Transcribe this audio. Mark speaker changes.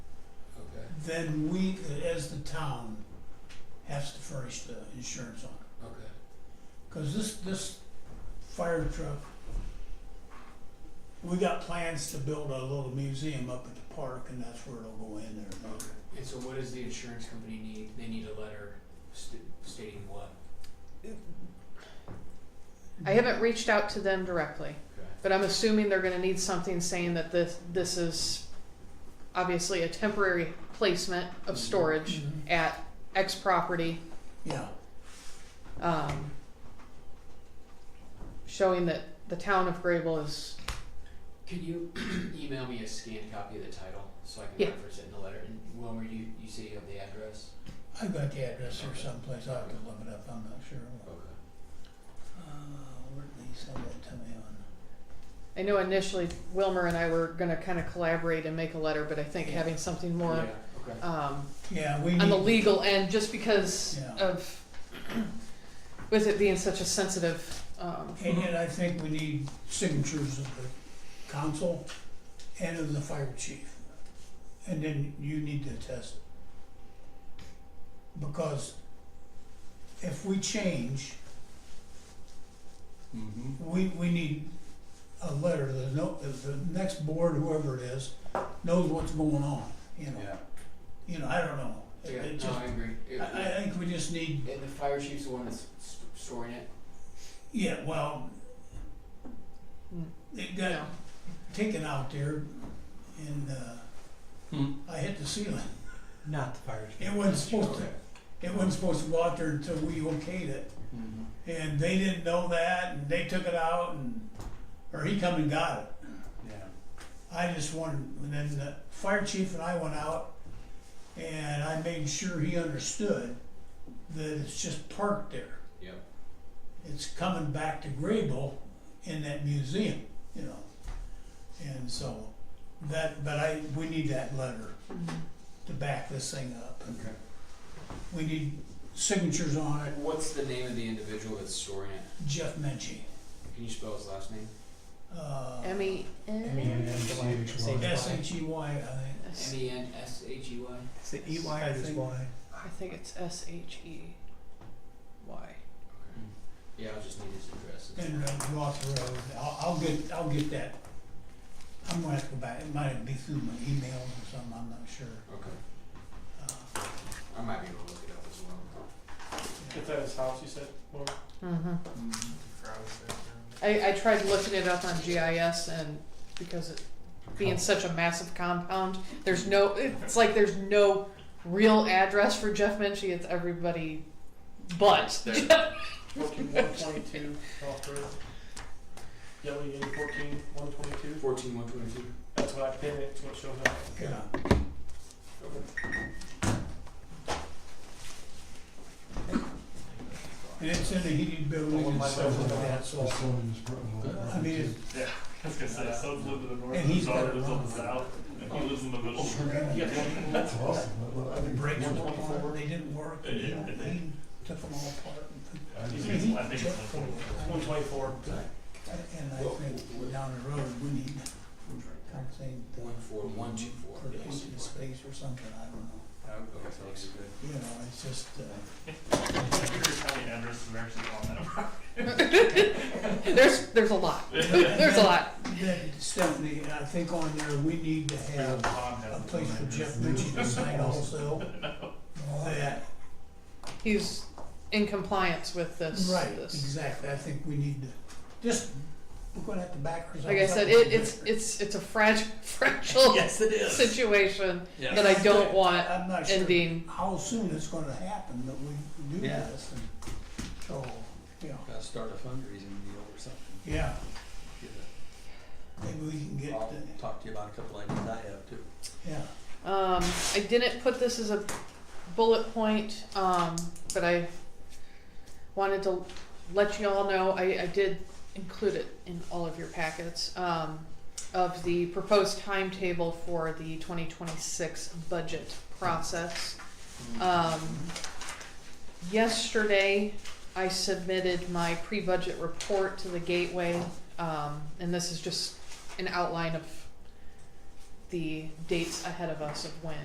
Speaker 1: then we, as the town, has to furnish the insurance on it.
Speaker 2: Okay.
Speaker 1: Cause this, this fire truck, we got plans to build a little museum up at the park and that's where it'll go in there.
Speaker 2: And so what does the insurance company need? They need a letter st- stating what?
Speaker 3: I haven't reached out to them directly,
Speaker 2: Okay.
Speaker 3: but I'm assuming they're gonna need something saying that this, this is obviously a temporary placement of storage
Speaker 1: Mhm.
Speaker 3: at X property,
Speaker 1: Yeah,
Speaker 3: um, showing that the town of Grable is,
Speaker 2: Could you email me a scanned copy of the title so I can
Speaker 3: Yeah.
Speaker 2: reference it in the letter? And Wilmer, you, you say you have the address?
Speaker 1: I got the address here someplace, I'll have to look it up, I'm not sure.
Speaker 2: Okay.
Speaker 1: Uh, where did he send that to me on?
Speaker 3: I know initially Wilmer and I were gonna kinda collaborate and make a letter, but I think
Speaker 1: Yeah.
Speaker 3: having something more,
Speaker 2: Yeah, okay.
Speaker 3: um,
Speaker 1: Yeah, we
Speaker 3: on the
Speaker 1: need,
Speaker 3: legal end, just because
Speaker 1: Yeah.
Speaker 3: of, with it being such a sensitive, um,
Speaker 1: and yet I think we need signatures of the council and of the fire chief. And then you need to attest. Because if we change,
Speaker 4: Mm-hmm.
Speaker 1: we, we need a letter, the no, the next board, whoever it is, knows what's going on, you know,
Speaker 4: Yeah.
Speaker 1: you know, I don't know. It-
Speaker 2: Yeah,
Speaker 1: it
Speaker 2: no,
Speaker 1: just-
Speaker 2: I agree. It-
Speaker 1: I, I think we just need,
Speaker 2: and the fire chief's the one that's s- storing it?
Speaker 1: yeah, well,
Speaker 3: Hmm.
Speaker 1: it
Speaker 3: you
Speaker 1: got
Speaker 3: know.
Speaker 1: taken out there and uh
Speaker 4: Hmm.
Speaker 1: I hit the ceiling.
Speaker 5: Mm-hmm. Not the fire chief.
Speaker 1: It wasn't supposed to it wasn't supposed to go out there until we okayed it.
Speaker 4: Mm-hmm.
Speaker 1: And they didn't know that and they took it out and or he come and got it.
Speaker 4: Yeah.
Speaker 1: I just wanted and then the fire chief and I went out and I made sure he understood that it's just parked there.
Speaker 2: Yep.
Speaker 1: It's coming back to Grable in that museum, you know. And so that but I we need that letter. to back this thing up. and
Speaker 2: Okay.
Speaker 1: We need signatures on it,
Speaker 2: What's the name of the individual that's storing it?
Speaker 1: Jeff Menchie.
Speaker 2: Can you spell his last name?
Speaker 1: uh,
Speaker 3: M E
Speaker 5: Mm-hmm.
Speaker 3: N.
Speaker 1: S-H-E-Y, I think.
Speaker 2: M E N S H E Y?
Speaker 5: It's the EY or
Speaker 1: I
Speaker 5: just
Speaker 1: think-
Speaker 5: Y?
Speaker 3: I think it's S H E Y.
Speaker 2: Okay. Yeah, I'll just need his address.
Speaker 1: And uh, Ross Road, I'll, I'll get, I'll get that. I'm gonna have to go back, it might be through my email or something, I'm not sure.
Speaker 2: Okay.
Speaker 1: Uh,
Speaker 2: I might be able to look it up as well.
Speaker 1: yeah.
Speaker 6: It's at his house, you said, Laura?
Speaker 3: Mm-hmm.
Speaker 4: Mm-hmm.
Speaker 3: I, I tried looking it up on GIS and because it being such a massive compound, there's no, it's like there's no real address for Jeff Menchie. It's everybody but.
Speaker 6: Fourteen one twenty-two, off road. Yelly in fourteen one twenty-two,
Speaker 2: Fourteen one twenty two.
Speaker 6: that's what I pin it, it's what shows up.
Speaker 1: Yeah. And it's in a heated building and stuff like that, so, I mean, it's,
Speaker 6: I was gonna say, his sons live to the north,
Speaker 1: And
Speaker 6: his
Speaker 1: he's
Speaker 6: daughter
Speaker 1: got it
Speaker 6: lives up
Speaker 1: wrong.
Speaker 6: the south, and he lives in the middle.
Speaker 1: That's
Speaker 4: awesome.
Speaker 1: the brakes were
Speaker 6: 124.
Speaker 1: on, they didn't work,
Speaker 6: Yeah,
Speaker 1: you know,
Speaker 6: yeah.
Speaker 1: he took them all apart and put
Speaker 6: I think it's one twenty-four.
Speaker 1: And I think down the road, we need something,
Speaker 2: One four one two four.
Speaker 1: for open space or something, I don't know. You know, it's just, uh,
Speaker 6: I'm curious how many addresses are actually on that.
Speaker 3: There's, there's a lot. There's a lot.
Speaker 1: then Stephanie, I think on there, we need to
Speaker 6: Because
Speaker 1: have
Speaker 6: Tom has
Speaker 1: a
Speaker 6: it.
Speaker 1: place for Jeff Ritchie to sign also. That,
Speaker 3: He's in compliance with this.
Speaker 1: right,
Speaker 3: This.
Speaker 1: exactly, I think we need to, just, we're gonna have to back ourselves up.
Speaker 3: Like I said,
Speaker 1: a little
Speaker 3: it, it's,
Speaker 1: bit.
Speaker 3: it's, it's a fragile, fragile
Speaker 5: it is.
Speaker 3: situation
Speaker 5: Yes.
Speaker 3: that I don't want
Speaker 1: I'm not sure
Speaker 3: ending.
Speaker 1: how soon it's gonna happen that we do
Speaker 4: Yeah.
Speaker 1: this, and, so, yeah,
Speaker 4: Gotta start a fundraising deal or something.
Speaker 1: yeah,
Speaker 4: Get
Speaker 1: maybe we can
Speaker 4: a-
Speaker 1: get,
Speaker 4: I'll
Speaker 1: the-
Speaker 4: talk to you about a couple ideas I have too.
Speaker 1: yeah.
Speaker 3: Um, I didn't put this as a bullet point, um, but I wanted to let you all know, I, I did include it in all of your packets, um, of the proposed timetable for the twenty twenty-six budget process.
Speaker 2: Uh,
Speaker 3: Um, yesterday, I submitted my pre-budget report to the Gateway, um, and this is just an outline of the dates ahead of us of when